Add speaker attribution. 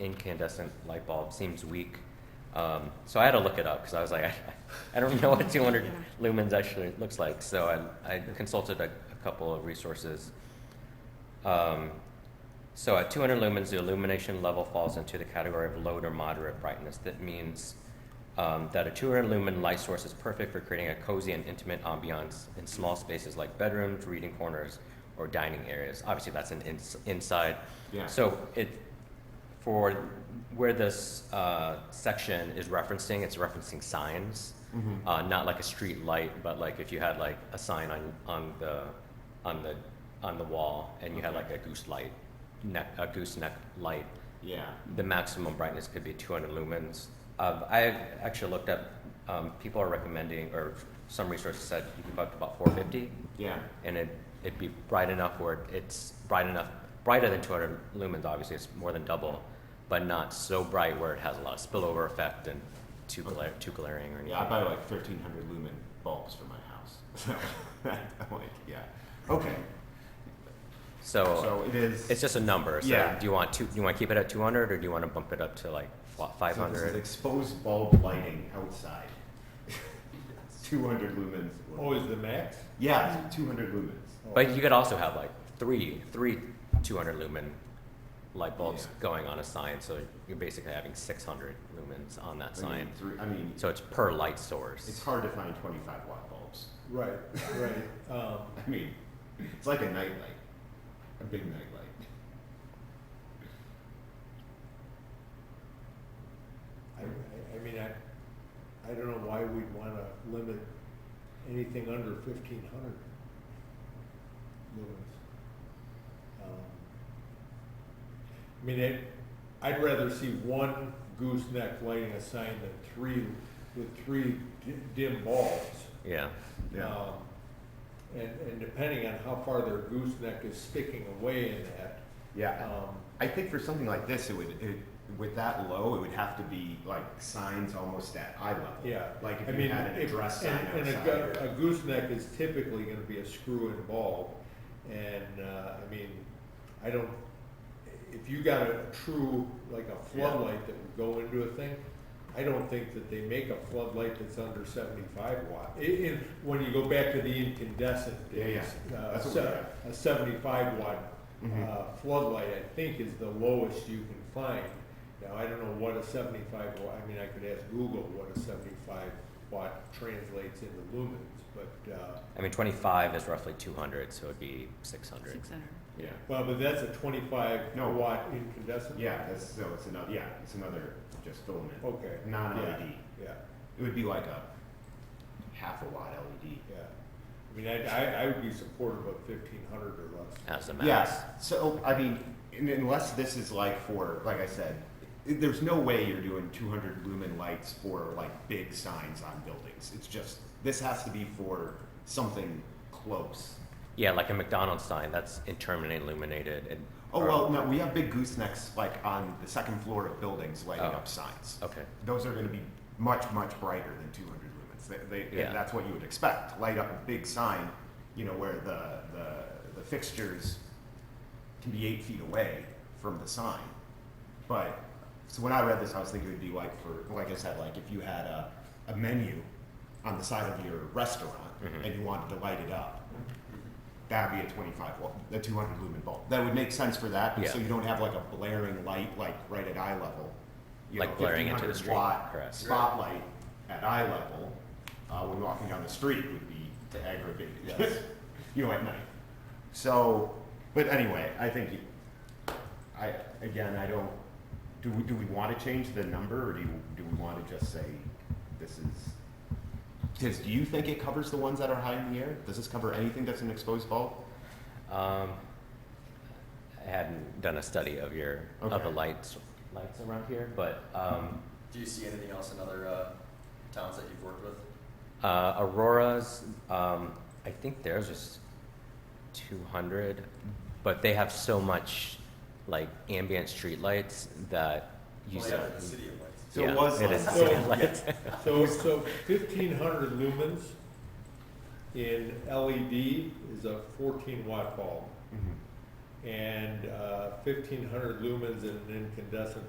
Speaker 1: incandescent light bulb seems weak. Um, so I had to look it up because I was like, I, I don't know what 200 lumens actually looks like. So I, I consulted a, a couple of resources. Um, so at 200 lumens, the illumination level falls into the category of low to moderate brightness. That means um, that a 200 lumen light source is perfect for creating a cozy and intimate ambiance in small spaces like bedrooms, reading corners, or dining areas. Obviously, that's an ins- inside.
Speaker 2: Yeah.
Speaker 1: So it for where this uh, section is referencing, it's referencing signs,
Speaker 2: Mhm.
Speaker 1: uh, not like a street light, but like if you had like a sign on on the on the on the wall and you had like a goose light, neck a gooseneck light
Speaker 2: Yeah.
Speaker 1: the maximum brightness could be 200 lumens. Uh, I actually looked up, um, people are recommending, or some resources said you can go up to about 450,
Speaker 2: Yeah.
Speaker 1: and it, it'd be bright enough where it's bright enough, brighter than 200 lumens, obviously, it's more than double, but not so bright where it has a lot of spillover effect and too, gla- too glaring or anything.
Speaker 2: Yeah, I buy like thirteen hundred lumen bulbs for my house. So I'm like, yeah. Okay.
Speaker 1: So
Speaker 2: So it is
Speaker 1: it's just a number. So
Speaker 2: Yeah.
Speaker 1: do you want to, do you want to keep it at 200 or do you want to bump it up to like what,
Speaker 2: So this is
Speaker 1: 500?
Speaker 2: exposed bulb lighting outside. two hundred lumens.
Speaker 3: Oh, is the max?
Speaker 2: Yeah, two hundred lumens.
Speaker 1: But you could also have like three, three 200 lumen light bulbs
Speaker 2: Yeah.
Speaker 1: going on a sign, so you're basically having 600 lumens on that
Speaker 2: I
Speaker 1: sign.
Speaker 2: mean, three, I mean
Speaker 1: So it's per light
Speaker 2: it's
Speaker 1: source.
Speaker 2: hard to find twenty five watt bulbs.
Speaker 3: Right, right. Um,
Speaker 2: I mean it's like a nightlight. A big nightlight.
Speaker 3: I, I- I mean, I, I don't know why we'd wanna limit anything under fifteen hundred lumens. Um, I mean, it, I'd rather see one gooseneck lighting a sign than three, with three di- dim bulbs.
Speaker 1: Yeah.
Speaker 2: Yeah.
Speaker 3: Um, And, and depending on how far their gooseneck is sticking away in that,
Speaker 2: Yeah.
Speaker 3: um,
Speaker 2: I think for something like this, it would it, with that low, it would have to be like signs almost at eye level.
Speaker 3: Yeah.
Speaker 2: Like if
Speaker 3: I
Speaker 2: you
Speaker 3: mean,
Speaker 2: had an
Speaker 3: if-
Speaker 2: address sign
Speaker 3: and- and a
Speaker 2: outside.
Speaker 3: gu- A gooseneck is typically gonna be a screw and bulb, and, uh, I mean, I don't, if you got a true, like a floodlight that would go into a thing, I don't think that they make a floodlight that's under seventy-five watt. I in, when you go back to the incandescent
Speaker 2: Yeah, yeah.
Speaker 3: days, uh,
Speaker 2: That's what we
Speaker 3: se-
Speaker 2: have.
Speaker 3: a seventy-five watt,
Speaker 2: Mhm.
Speaker 3: uh, floodlight, I think is the lowest you can find. Now, I don't know what a seventy-five watt, I mean, I could ask Google what a seventy-five watt translates into lumens, but, uh,
Speaker 1: I mean, 25 is roughly 200, so it'd be 600.
Speaker 4: Six hundred.
Speaker 2: yeah.
Speaker 3: well, but that's a twenty-five
Speaker 2: No.
Speaker 3: watt incandescent?
Speaker 2: Yeah. That's, so it's another. Yeah. It's another just filament.
Speaker 3: Okay.
Speaker 2: Non LED.
Speaker 3: Yeah,
Speaker 2: It would be like a half a watt E LED.
Speaker 3: yeah. I mean, I, I, I would be supportive of fifteen hundred or less.
Speaker 1: As the max.
Speaker 2: Yes. So I mean, un- unless this is like for, like I said, i- there's no way you're doing 200 lumen lights for like big signs on buildings. It's just this has to be for something close.
Speaker 1: Yeah, like a McDonald's sign that's interminably illuminated. And,
Speaker 2: Oh
Speaker 1: or-
Speaker 2: well, no, we have big goosenecks like on the second floor of buildings lighting
Speaker 1: Oh.
Speaker 2: up signs.
Speaker 1: Okay.
Speaker 2: Those are going to be much much brighter than 200 lumens. They, they,
Speaker 1: Yeah.
Speaker 2: That's what you would expect. Light up a big sign, you know, where the the, the fixtures can be eight feet away from the sign. But so when I read this, I was thinking it would be like for like I said, like if you had a, a menu on the side of your restaurant
Speaker 1: Mhm.
Speaker 2: and you wanted to light it up, that'd be a 25 watt, a 200 lumen bulb. That would make sense for that,
Speaker 1: Yeah.
Speaker 2: so you don't have like a blaring light like right at eye level. You
Speaker 1: Like
Speaker 2: know,
Speaker 1: blaring into the
Speaker 2: 1500
Speaker 1: street,
Speaker 2: watt
Speaker 1: correct.
Speaker 2: Spotlight at eye level uh, when walking down the street would be to aggravate
Speaker 3: Yes.
Speaker 2: you know, at night. So, but anyway, I think, you- I, again, I don't, do we, do we want to change the number or do you, do we want to just say this is? Does, do you think it covers the ones that are high in the air? Does this cover anything that's an exposed bulb?
Speaker 1: Um, I hadn't done a study of your of the
Speaker 2: Okay.
Speaker 1: lights lights around here, but um,
Speaker 5: Do you see anything else in other uh, towns that you've worked with?
Speaker 1: Uh, Aurora's, um, I think theirs is 200, but they have so much like ambient streetlights that
Speaker 2: Oh,
Speaker 1: you
Speaker 5: Well,
Speaker 1: see-
Speaker 5: yeah, the city of lights.
Speaker 2: So it
Speaker 1: Yeah,
Speaker 2: was
Speaker 1: it is
Speaker 2: like-
Speaker 1: city
Speaker 3: So-
Speaker 1: lights.
Speaker 3: So, so fifteen hundred lumens in LED is a fourteen watt bulb.
Speaker 1: Mm-hmm.
Speaker 2: Mhm.
Speaker 3: uh, And fifteen hundred lumens in an incandescent